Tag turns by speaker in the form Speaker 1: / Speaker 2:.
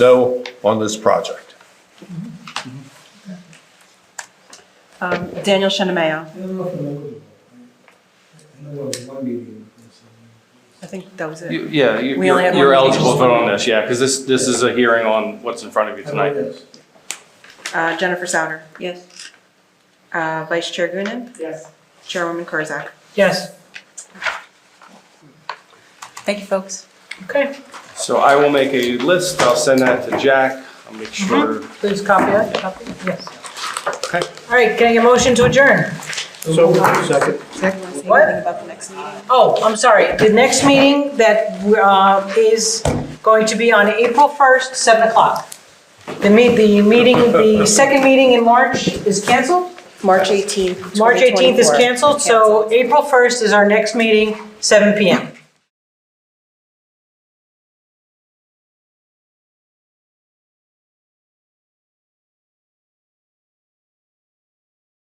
Speaker 1: no on this project.
Speaker 2: Um, Daniel Shenameo.
Speaker 3: I don't know if I remember that. I know there was one meeting.
Speaker 2: I think that was it.
Speaker 4: You- Yeah, you-
Speaker 2: We only
Speaker 4: you're
Speaker 2: have
Speaker 4: you're
Speaker 2: one meeting.
Speaker 4: eligible to vote on this, yeah, because this, this is a hearing on what's in front of you tonight.
Speaker 3: Yes.
Speaker 2: Uh, Jennifer Souter.
Speaker 5: Yes.
Speaker 2: Uh, Vice Chair Gunnin.
Speaker 5: Yes.
Speaker 2: Chairwoman Kurzak.
Speaker 5: Yes.
Speaker 2: Thank you, folks.
Speaker 5: Okay,
Speaker 4: So I will make a list, I'll send that to Jack, I'll make
Speaker 2: Mm-hmm.
Speaker 4: sure.
Speaker 5: please copy that, copy, yes.
Speaker 4: Okay.
Speaker 5: All right, can I get a motion to adjourn?
Speaker 3: So, second.
Speaker 5: What?
Speaker 2: about the next meeting?
Speaker 5: Oh, I'm sorry, the next meeting that uh, is going to be on April 1st, 7 o'clock. The meet, the meeting, the second meeting in March is canceled?
Speaker 2: March 18th.
Speaker 5: March 18th is
Speaker 2: 2024.
Speaker 5: canceled, so April 1st is our next meeting, 7 PM.